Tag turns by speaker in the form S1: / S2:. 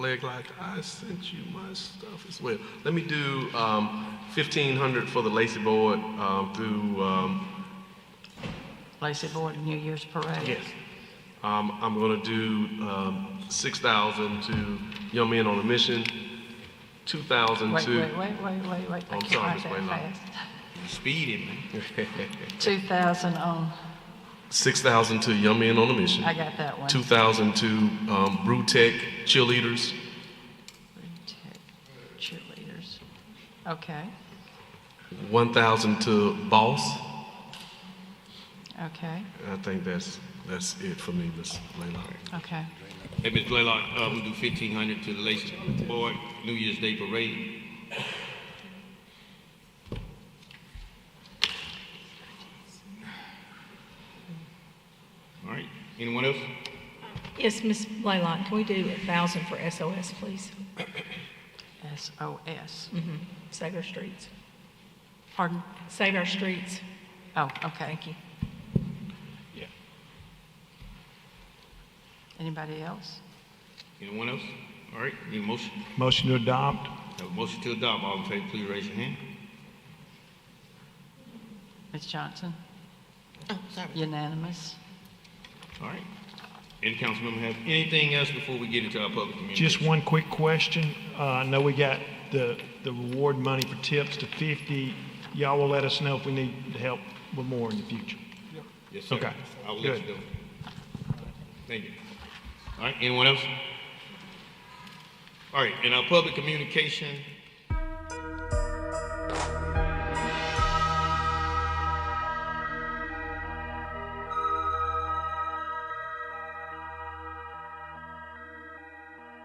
S1: Leg like I sent you my stuff as well. Let me do um, fifteen hundred for the Lacy Board um, through. Um,
S2: Lacey Board New Year's Parade.
S1: yes. Um, I'm going to do um, six thousand to Young Men on a Mission. Two thousand
S2: Wait,
S1: to
S2: wait, wait, wait, wait, wait. I
S1: I'm
S2: can't
S1: sorry,
S2: write
S1: Miss
S2: that
S1: Wayland.
S2: fast.
S3: Speeding, man.
S2: 2,000 on,
S1: six thousand to Young Men on a Mission.
S2: I got that one.
S1: Two thousand to um, Brew Tech Cheerleaders.
S2: Tech Cheerleaders. Okay,
S1: One thousand to Boss.
S2: okay,
S1: I think that's that's it for me, Miss Layla.
S2: okay.
S3: Hey, Ms. Blaylock, uh, we do fifteen hundred to the Lacey Board New Year's Day Parade. All right, anyone else?
S4: Yes, Ms. Blaylock, can we do a thousand for SOS, please?
S2: SOS.
S4: Save our streets.
S2: Pardon?
S4: Save our streets.
S2: Oh, okay.
S4: Thank you.
S3: Yeah.
S2: Anybody else?
S3: Anyone else? All right, need a motion?
S5: Motion to adopt.
S3: Have a motion to adopt, all in favor, please raise your hand.
S2: Ms. Johnson? Oh, sorry. Unanimous?
S3: All right. Any council member have anything else before we get into our public communication?
S5: Just one quick question. Uh, I know we got the, the reward money for tips to 50. Y'all will let us know if we need help with more in the future.
S3: Yes, sir.
S5: Okay.
S3: I will let
S5: Good.
S3: you know. Thank you. All right, anyone else? All right, in our public communication,